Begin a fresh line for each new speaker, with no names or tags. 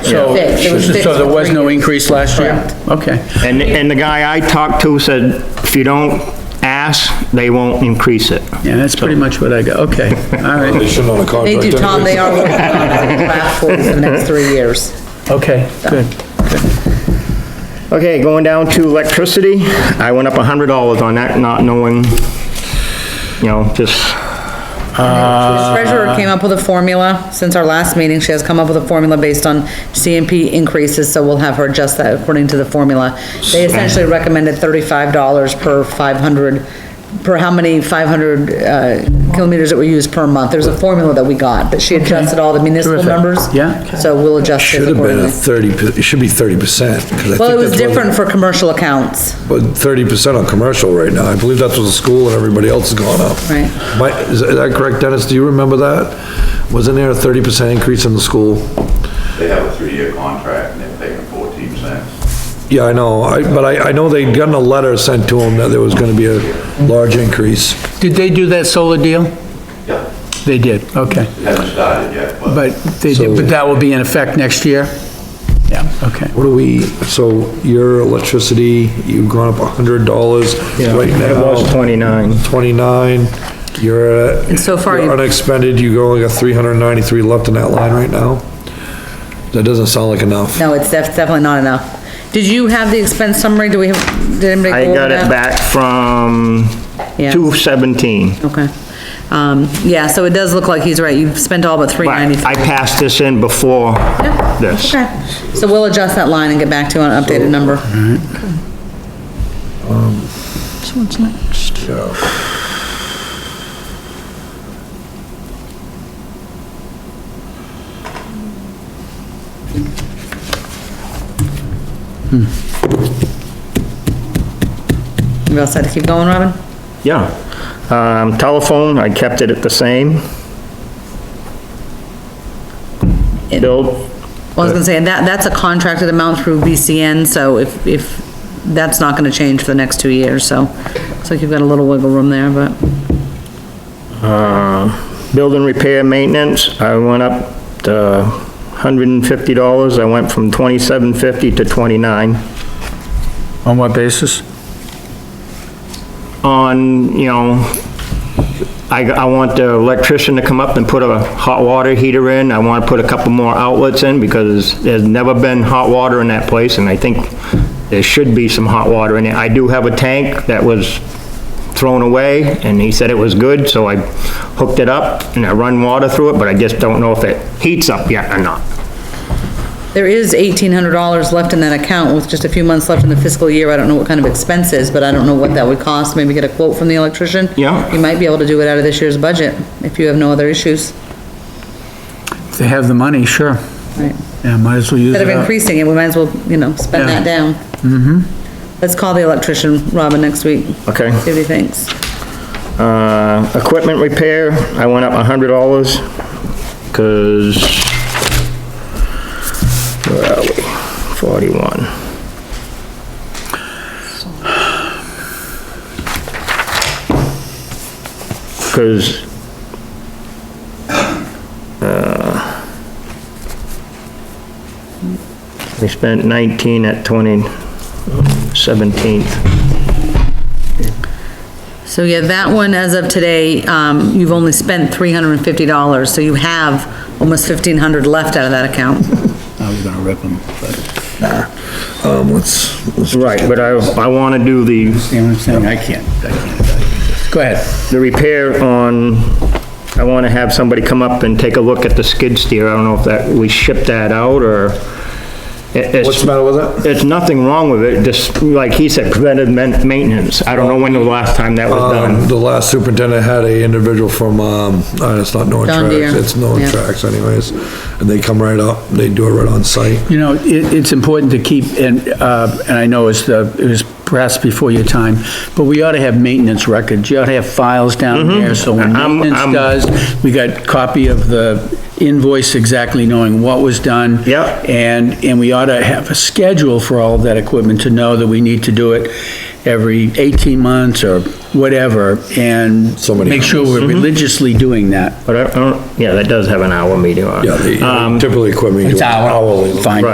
So,
Fixed, it was fixed
so there
for
was
three
no
years.
increase last year?
Correct.
Okay.
And, and the guy I talked to said, if you don't ask, they won't increase it.
Yeah, that's pretty much what I got, okay, all
They
right,
shouldn't on a
They
contract.
do, Tom,
anyway.
they are working on it, draft for the next three years.
okay, good.
Okay, going down to electricity, I went up a hundred dollars on that, not knowing, you know, just,
Treasurer came up with a formula, since our last meeting, she has come up with a formula based on CMP increases, so we'll have her adjust that according to the formula. They essentially recommended thirty-five dollars per five hundred, per how many five hundred, uh, kilometers that were used per month. There's a formula that we got, but she adjusted all the municipal
Terrific.
numbers.
Yeah.
So we'll adjust
Should
it
have been a
accordingly.
thirty, per- it should be thirty percent.
Well, it was different for commercial accounts,
But thirty percent on commercial right now. I believe that's what the school and everybody else has gone up.
Right.
My, is is that correct, Dennis? Do you remember that? Wasn't there a thirty percent increase in the school?
They have a three-year contract and they're paying fourteen cents.
Yeah, I know, I, but I, I know they'd gotten a letter sent to them that there was gonna be a large increase.
Did they do that solar deal?
Yeah,
They did, okay,
it hasn't started yet, but
but they, did- but that will be in effect next year? Yeah, okay.
What do we, so your electricity, you've gone up a hundred dollars right
it was
now,
twenty-nine.
twenty-nine, you're at.
And so far
you're
you-
Unexpended, you only got three hundred and ninety-three left in that line right now? That doesn't sound like enough.
no, it's def- definitely not enough. Did you have the expense summary, do we have, did anybody?
I
go over
got it
that?
back from
Yeah.
two seventeen.
Okay. Um, yeah, so it does look like he's right. You've spent all but three
But I
ninety-three.
passed this in before this.
Okay. So we'll adjust that line and get back to you on an updated number. You all set to keep going, Robin?
Yeah. Um, telephone, I kept it at the same. Bill,
Well, I was gonna say, that, that's a contracted amount through BCN, so if, if, that's not gonna change for the next two years, so. Looks like you've got a little wiggle room there, but,
Uh, building repair maintenance, I went up to hundred and fifty dollars. I went from twenty-seven fifty to twenty-nine
On what basis?
on, you know, I, I want the electrician to come up and put a hot water heater in. I want to put a couple more outlets in because there's never been hot water in that place and I think there should be some hot water in it. I do have a tank that was thrown away and he said it was good, so I hooked it up and I run water through it, but I just don't know if it heats up yet or not.
there is eighteen hundred dollars left in that account with just a few months left in the fiscal year. I don't know what kind of expenses, but I don't know what that would cost. Maybe get a quote from the electrician.
Yeah.
You might be able to do it out of this year's budget, if you have no other issues.
If they have the money, sure.
Right.
Yeah, might as well use
Instead
it
of
up.
increasing it, we might as well, you know, spend
Yeah.
that down. Mm-hmm. Let's call the electrician, Robin, next week.
Okay.
See what he thinks.
Uh, equipment repair, I went up a hundred dollars, cause, where are we? Forty-one. Cause, uh, we spent nineteen at twenty, seventeenth.
So yeah, that one, as of today, um, you've only spent three hundred and fifty dollars, so you have almost fifteen hundred left out of that account.
I was gonna rip them, but,
Um, let's, let's.
Right, but I, I want to do the,
you know what I'm saying, I can't, I can't. Go ahead.
the repair on, I want to have somebody come up and take a look at the skid steer. I don't know if that, we ship that out or. it- it's-
What's the matter with it?
It's nothing wrong with it, just like he said, preventive men- maintenance. I don't know when the last time that was
Um,
done.
the last superintendent had a individual from, um, uh, it's not Norton
John
Tracks,
Deere.
it's Norton
Yeah.
Tracks anyways, and they come right up, they do it right on site.
You know, it, it's important to keep, and, uh, and I know it's the, it was perhaps before your time, but we ought to have maintenance records. You ought to have files down there, so when
Mm-hmm. I'm-
maintenance
I'm-
does, we got copy of the invoice exactly knowing what was done.
Yep.
And, and we ought to have a schedule for all of that equipment to know that we need to do it every 18 months or whatever, and
So many
make sure
Mm-hmm.
we're religiously doing that.
But I- I don't, yeah, that does have an hour meeting on it.
Yeah,
Um,
the- typically equipment. you do
It's hour.
hourly.
Fine.